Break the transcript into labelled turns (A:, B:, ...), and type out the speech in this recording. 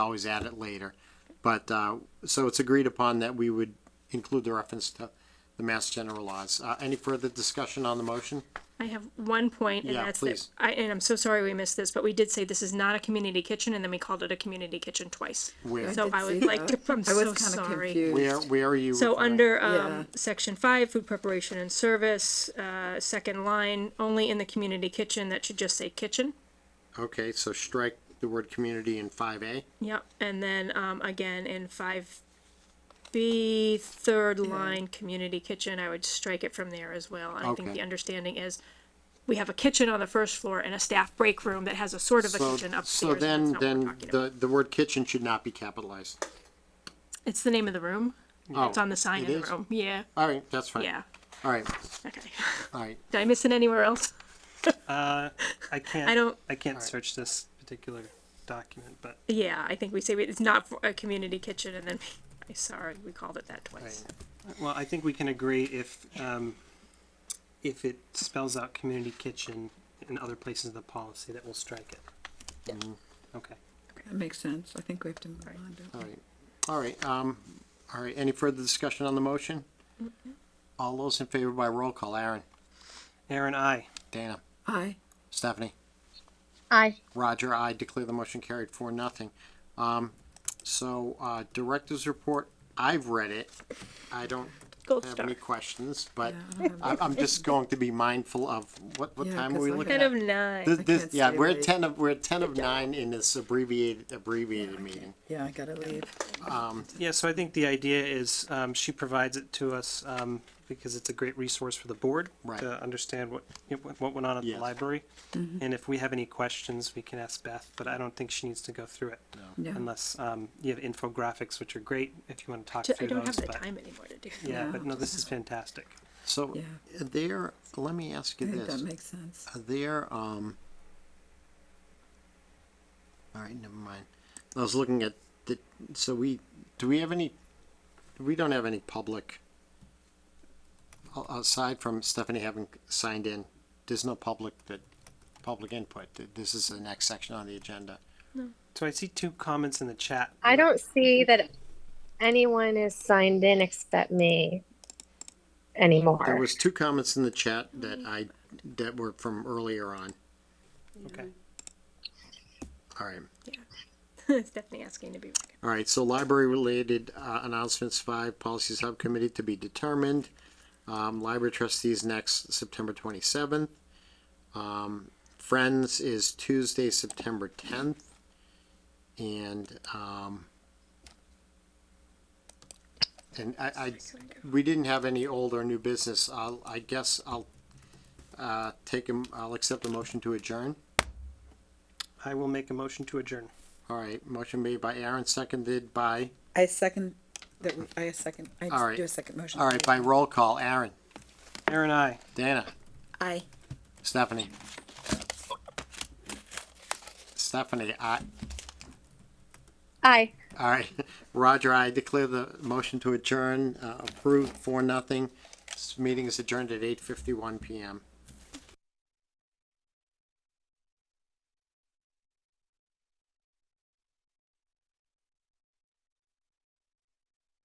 A: always add it later. But, uh, so it's agreed upon that we would include the reference to the Mass General laws. Uh, any further discussion on the motion?
B: I have one point, and
A: Yeah,
B: that's
A: please.
B: that, I, and I'm so sorry we missed this, but we did say this is not a community kitchen, and then we called it a community kitchen twice.
A: Where,
B: So I would like to, I'm
C: I
B: so
C: was kinda
B: sorry.
C: confused.
A: where, where are you?
B: So
A: referring?
B: under,
C: Yeah.
B: um, section five, food preparation and service, uh, second line, only in the community kitchen, that should just say kitchen.
A: Okay, so strike the word community in five A.
B: Yep, and then, um, again, in five B, third line, community kitchen, I would strike it from there as well. And I think
A: Okay.
B: the understanding is, we have a kitchen on the first floor and a staff break room that has a sort of a
A: So,
B: kitchen upstairs.
A: so
B: but that's
A: then,
B: not what we're
A: then
B: talking about.
A: the, the word kitchen should not be capitalized.
B: It's the name of the room, it's
A: Oh,
B: on the sign
A: it
B: in
A: is?
B: the room, yeah,
A: All right, that's fine.
B: yeah,
A: All right,
B: okay.
A: all right.
B: Did I miss it anywhere else?
D: I can't.
B: I don't-
D: I can't search this particular document, but
B: Yeah, I think we say we- it's not for a community kitchen and then, I sorry, we called it that twice.
D: well, I think we can agree if um, if it spells out community kitchen and other places in the policy that we'll strike it. Mm-hmm. Okay.
C: That makes sense. I think we have to move on. don't we?
A: All right, all right, um, all right, any further discussion on the motion? All those in favor by roll call, Aaron,
D: Aaron, I.
A: Dana,
C: Aye.
A: Stephanie,
E: Aye.
A: Roger, I declare the motion carried for nothing. Um, so, uh, director's report, I've read it. I don't
B: Gold
A: have
B: star.
A: any questions, but
C: Yeah, I don't have-
A: I'm, I'm just going to be mindful of, what, what
C: Yeah,
A: time are
C: 'cause
A: we
C: I
A: looking at?
B: Ten of nine,
A: This,
C: I
A: this,
C: can't
A: yeah,
C: stay
A: we're at
C: late.
A: ten of, we're at ten of nine in this abbreviated, abbreviated meeting.
C: Yeah, I gotta leave.
D: Yeah. So I think the idea is um, she provides it to us um, because it's a great resource for the board
A: Right.
D: to understand what you know, what went on at
A: Yes.
D: the library,
B: Mm-hmm.
D: and if we have any questions, we can ask Beth. But I don't think she needs to go through it
C: Yeah.
D: unless um, you have infographics, which are great if you want to talk
B: Ju- I
D: through
B: don't have
D: those.
B: the
D: but-
B: time anymore to do that.
D: Yeah,
C: Yeah.
D: but no, this is fantastic.
A: So
C: Yeah.
A: there, let me ask
C: I
A: you
C: think that
A: this,
C: makes sense.
A: there, um, all right, never mind. I was looking at the, so we, do we have any, we don't have any public, o- aside from Stephanie having signed in, there's no public that, public input. Th- This is the next section on the agenda.
D: So I see two comments in the chat.
E: I don't see that anyone is signed in except me anymore.
A: There was two comments in the chat that I, that were from earlier on.
D: Okay.
A: All right.
B: It's definitely asking to be.
A: All right, so library-related uh, announcements, five, policy subcommittee to be determined. Um, Library trustees next, September 27th. Um, Friends is Tuesday, September 10th. And, um, and I, I, we didn't have any old or new business. I'll, I guess I'll uh, take, a m- I'll accept a motion to adjourn.
D: I will make a motion to adjourn.
A: All right, motion made by Aaron, seconded by,
C: I second, that, we- I second, I
A: All right.
C: just do a second motion.
A: all right, by roll call, Aaron.
D: Aaron, I.
A: Dana,
C: Aye.
A: Stephanie. Stephanie, I,
E: Aye.
A: all right, Roger, I declare the motion to adjourn, uh, approved for nothing. This meeting is adjourned at eight fifty-one PM.